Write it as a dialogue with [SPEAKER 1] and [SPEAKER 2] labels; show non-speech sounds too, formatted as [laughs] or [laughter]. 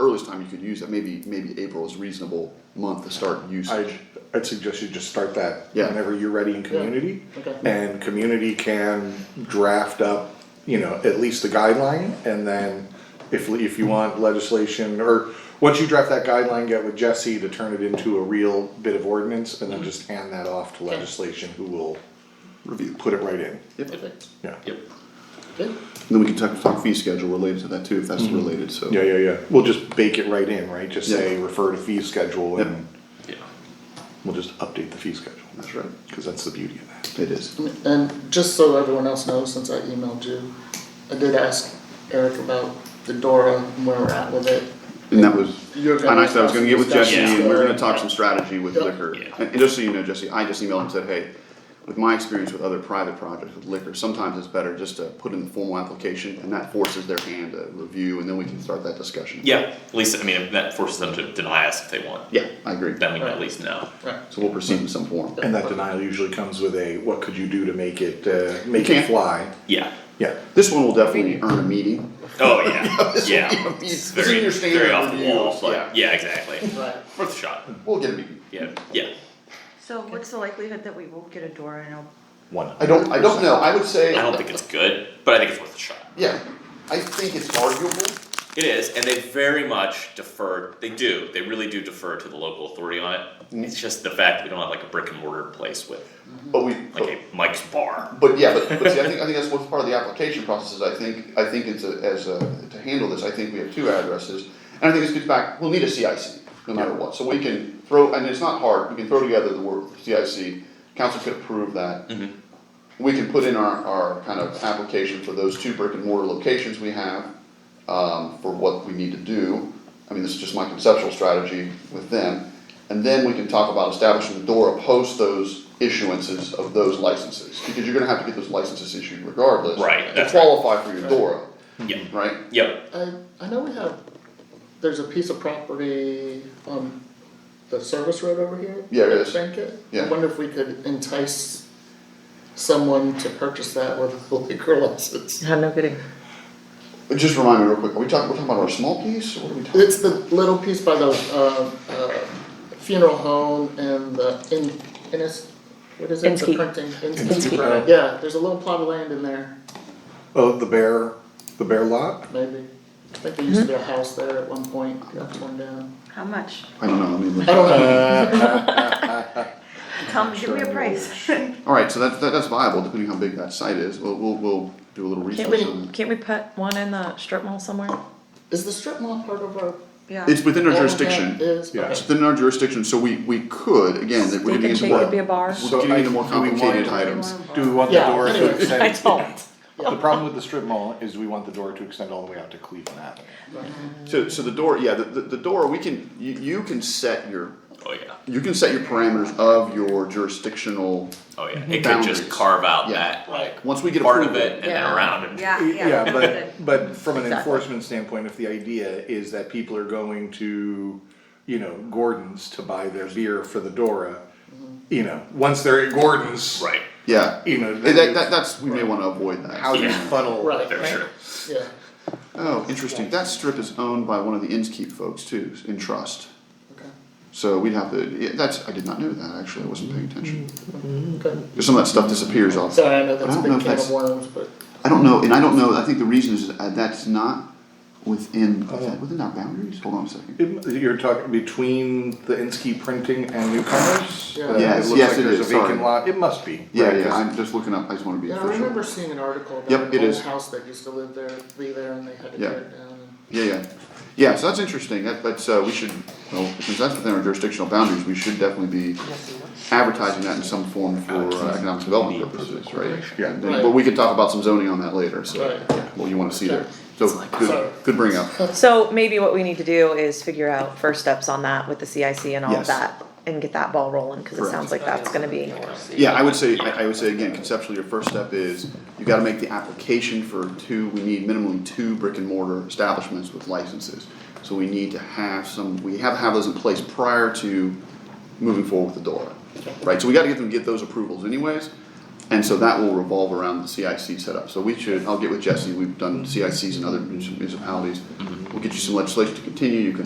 [SPEAKER 1] earliest time you could use that, maybe, maybe April is reasonable month to start usage.
[SPEAKER 2] I, I'd suggest you just start that
[SPEAKER 1] Yeah.
[SPEAKER 2] whenever you're ready in community.
[SPEAKER 1] Okay.
[SPEAKER 2] And community can draft up, you know, at least the guideline, and then if, if you want legislation, or once you draft that guideline, get with Jesse to turn it into a real bit of ordinance, and then
[SPEAKER 1] Mm-hmm.
[SPEAKER 2] just hand that off to legislation who will
[SPEAKER 1] Review.
[SPEAKER 2] put it right in,
[SPEAKER 1] Yep.
[SPEAKER 3] Perfect.
[SPEAKER 2] yeah.
[SPEAKER 3] Yep. Good.
[SPEAKER 1] And Then we can talk, talk fee schedule related to that too, if that's related, so.
[SPEAKER 2] Yeah, yeah, yeah, we'll just bake it right in, right, just say
[SPEAKER 1] Yeah.
[SPEAKER 2] refer to fee schedule,
[SPEAKER 1] Yep.
[SPEAKER 2] and
[SPEAKER 3] Yeah.
[SPEAKER 2] we'll just update the fee schedule.
[SPEAKER 1] That's right.
[SPEAKER 2] Cause that's the beauty of that.
[SPEAKER 1] It is.
[SPEAKER 3] And just so everyone else knows, since I emailed you, I did ask Eric about the Dora and where we're at with it.
[SPEAKER 1] And that was,
[SPEAKER 3] You're
[SPEAKER 1] and
[SPEAKER 3] gonna
[SPEAKER 1] I said I was gonna get with
[SPEAKER 3] discuss
[SPEAKER 1] Jesse
[SPEAKER 3] this
[SPEAKER 1] and we we're gonna
[SPEAKER 3] later.
[SPEAKER 1] talk some strategy with
[SPEAKER 3] Yep.
[SPEAKER 1] liquor.
[SPEAKER 3] Yeah.
[SPEAKER 1] And and just so you know, Jesse, I just emailed him and said, hey, with my experience with other private projects with liquor, sometimes it's better just to put in the formal application and that forces their hand to review and then we can start that discussion.
[SPEAKER 4] Yeah, at least, I mean, if that forces them to deny us if they want,
[SPEAKER 1] Yeah, I agree.
[SPEAKER 4] then we can
[SPEAKER 3] Right.
[SPEAKER 4] at least know.
[SPEAKER 3] Right.
[SPEAKER 1] So we'll proceed in some form.
[SPEAKER 2] And that denial usually comes with a, what could you do to make it, uh, make
[SPEAKER 1] can't.
[SPEAKER 2] it fly?
[SPEAKER 4] Yeah.
[SPEAKER 2] Yeah,
[SPEAKER 1] This one will definitely earn a meeting.
[SPEAKER 4] Oh, [laughs] yeah,
[SPEAKER 1] This will
[SPEAKER 4] yeah.
[SPEAKER 1] be a meeting.
[SPEAKER 4] It's
[SPEAKER 1] This is
[SPEAKER 4] very,
[SPEAKER 1] your standard
[SPEAKER 4] very off the
[SPEAKER 1] review,
[SPEAKER 4] wall,
[SPEAKER 1] yeah.
[SPEAKER 4] but yeah, exactly.
[SPEAKER 3] Right.
[SPEAKER 4] Worth a shot.
[SPEAKER 1] We'll get a meeting.
[SPEAKER 4] Yeah, yeah.
[SPEAKER 5] So what's the likelihood that we will get a door and a
[SPEAKER 2] one.
[SPEAKER 1] I don't, I don't know, I would say,
[SPEAKER 4] I don't think it's good, but I think it's worth a shot.
[SPEAKER 1] yeah, I think it's arguable.
[SPEAKER 4] It is, and they very much defer. They do. They really do defer to the local authority on it. It's just the fact that we don't have like a brick and mortar place with
[SPEAKER 1] But we,
[SPEAKER 4] like a Mike's bar.
[SPEAKER 1] but yeah, but, but see, I think, I think that's what's part of the application process, is I think, I think it's a, as a, to handle this, I think we have two addresses. And I think this gets back, we'll need a CIC, no matter what, so we can throw, and it's not hard, we can throw together the word CIC, council could approve that. We can put in our, our kind of application for those two brick and mortar locations we have, um, for what we need to do. I mean, this is just my conceptual strategy with them. And then we can talk about establishing the DORA post those issuances of those licenses, because you're gonna have to get those licenses issued regardless.
[SPEAKER 4] Right,
[SPEAKER 1] To
[SPEAKER 4] that's right.
[SPEAKER 1] qualify for your DORA,
[SPEAKER 4] Yeah.
[SPEAKER 1] right?
[SPEAKER 4] Yep.
[SPEAKER 3] I, I know we have, there's a piece of property on the service road over here.
[SPEAKER 1] Yeah, there is.
[SPEAKER 3] Bankhead.
[SPEAKER 1] Yeah.
[SPEAKER 3] I wonder if we could entice someone to purchase that with [laughs] a liquor license.
[SPEAKER 5] No, no kidding.
[SPEAKER 1] But Just remind me real quick, are we talking, we're talking about our small piece, or what are we talking?
[SPEAKER 3] It's the little piece by the, uh, uh, funeral home and the, in, Innis, what is it, the
[SPEAKER 5] Inskeep.
[SPEAKER 3] printing? Inskeep.
[SPEAKER 5] Inskeep.
[SPEAKER 2] Inskeep.
[SPEAKER 3] Yeah, there's a little plot of land in there,
[SPEAKER 2] Oh, the bear, the bear lot?
[SPEAKER 3] maybe, I think there used to be a house there at one point, got torn down.
[SPEAKER 5] How much?
[SPEAKER 1] I don't know, I mean.
[SPEAKER 3] I don't know,
[SPEAKER 5] Tell me, give me a price. Can't
[SPEAKER 1] Alright, so that, that, that's viable, depending how big that site is, we'll, we'll, we'll do a little research on
[SPEAKER 5] we,
[SPEAKER 1] that.
[SPEAKER 5] [laughs] can't we put one in the strip mall somewhere?
[SPEAKER 3] is the strip mall part of our?
[SPEAKER 5] Yeah.
[SPEAKER 1] It's within our
[SPEAKER 3] all of that
[SPEAKER 1] jurisdiction,
[SPEAKER 3] Is,
[SPEAKER 2] Yeah.
[SPEAKER 1] it's
[SPEAKER 3] okay,
[SPEAKER 1] within our jurisdiction, so we, we could, again, that
[SPEAKER 5] We
[SPEAKER 1] we're getting into
[SPEAKER 5] could take
[SPEAKER 1] more.
[SPEAKER 5] it be a bar.
[SPEAKER 1] We're
[SPEAKER 2] So
[SPEAKER 1] getting
[SPEAKER 2] I-
[SPEAKER 1] into more
[SPEAKER 2] do we want-
[SPEAKER 1] complicated items.
[SPEAKER 2] Do we want the
[SPEAKER 3] Yeah,
[SPEAKER 2] door to
[SPEAKER 3] anyway.
[SPEAKER 5] I
[SPEAKER 2] extend?
[SPEAKER 5] told.
[SPEAKER 2] The problem with the strip mall is we want the door to extend all the way out to Cleveland Avenue.
[SPEAKER 1] So, so the door, yeah, the, the, the door, we can, you, you can set your,
[SPEAKER 4] Oh yeah.
[SPEAKER 1] you can set your parameters of your jurisdictional,
[SPEAKER 4] Oh yeah. It could
[SPEAKER 1] Boundaries.
[SPEAKER 4] just carve out
[SPEAKER 1] Yeah.
[SPEAKER 4] that like
[SPEAKER 1] once we get
[SPEAKER 4] part
[SPEAKER 1] approval.
[SPEAKER 4] of it and then
[SPEAKER 5] Yeah.
[SPEAKER 4] around it.
[SPEAKER 5] Yeah,
[SPEAKER 2] Yeah,
[SPEAKER 5] yeah.
[SPEAKER 2] but, but from an
[SPEAKER 5] Exactly.
[SPEAKER 2] enforcement standpoint, if the idea is that people are going to, you know, Gordon's to buy their beer for the Dora, you know, once they're at Gordon's,
[SPEAKER 4] Right.
[SPEAKER 1] Yeah,
[SPEAKER 2] you know,
[SPEAKER 1] Eh, that,
[SPEAKER 2] then
[SPEAKER 1] that, that's, we may wanna avoid that.
[SPEAKER 2] how do you
[SPEAKER 4] Yeah.
[SPEAKER 2] funnel?
[SPEAKER 3] Right.
[SPEAKER 4] Very true.
[SPEAKER 3] yeah,
[SPEAKER 1] Oh, interesting, that strip is owned by one of the Innskeep folks too, in trust,
[SPEAKER 3] okay,
[SPEAKER 1] so we'd have to, yeah, that's, I did not know that, actually, I wasn't paying attention.
[SPEAKER 3] okay.
[SPEAKER 1] Cause some of that stuff disappears off,
[SPEAKER 3] Sorry, I know
[SPEAKER 1] I
[SPEAKER 3] that's
[SPEAKER 1] don't
[SPEAKER 3] a
[SPEAKER 1] know if
[SPEAKER 3] big can
[SPEAKER 1] that's-
[SPEAKER 3] of worms, but,
[SPEAKER 1] I don't know, and I don't know, I think the reason is that that's not within, is that within our boundaries, hold on a second.
[SPEAKER 2] You're talking between the Inskeep printing and newcomers?
[SPEAKER 3] Yeah.
[SPEAKER 2] Uh,
[SPEAKER 1] Yes,
[SPEAKER 2] it looks
[SPEAKER 1] yes,
[SPEAKER 2] like
[SPEAKER 1] it is,
[SPEAKER 2] there's a vacant
[SPEAKER 1] sorry.
[SPEAKER 2] lot. It must be.
[SPEAKER 1] Yeah,
[SPEAKER 2] right,
[SPEAKER 1] yeah,
[SPEAKER 2] 'cause
[SPEAKER 1] I'm just looking up, I just wanna be
[SPEAKER 3] yeah,
[SPEAKER 1] official.
[SPEAKER 3] I remember seeing an article
[SPEAKER 1] Yep,
[SPEAKER 3] about
[SPEAKER 1] it
[SPEAKER 3] an old
[SPEAKER 1] is.
[SPEAKER 3] house that used to live there, be there, and they had to
[SPEAKER 1] Yeah.
[SPEAKER 3] tear it down. and-
[SPEAKER 1] Yeah, yeah, yeah. So that's interesting. That, that's uh, we should. Well, since that's within our jurisdictional boundaries, we should definitely be advertising that in some form for uh, economic development purposes, right?
[SPEAKER 2] Yeah.
[SPEAKER 1] And then- But we could talk about some zoning on that later. So
[SPEAKER 3] Right.
[SPEAKER 1] yeah, what you want to see there. So
[SPEAKER 3] Sorry.
[SPEAKER 1] good, good bring up.
[SPEAKER 5] So maybe what we need to do is figure out first steps on that with the CIC and all
[SPEAKER 1] Yes.
[SPEAKER 5] of that and get that ball rolling because it
[SPEAKER 1] Correct.
[SPEAKER 5] sounds like that's gonna be.
[SPEAKER 1] Yeah, I would say, I, I would say again, conceptually, your first step is you gotta make the application for two, we need minimally two brick and mortar establishments with licenses. So we need to have some, we have to have those in place prior to moving forward with the DORA, right? So we gotta get them, get those approvals anyways. And so that will revolve around the CIC setup. So we should, I'll get with Jesse, we've done CICs in other municipalities. We'll get you some legislation to continue, you can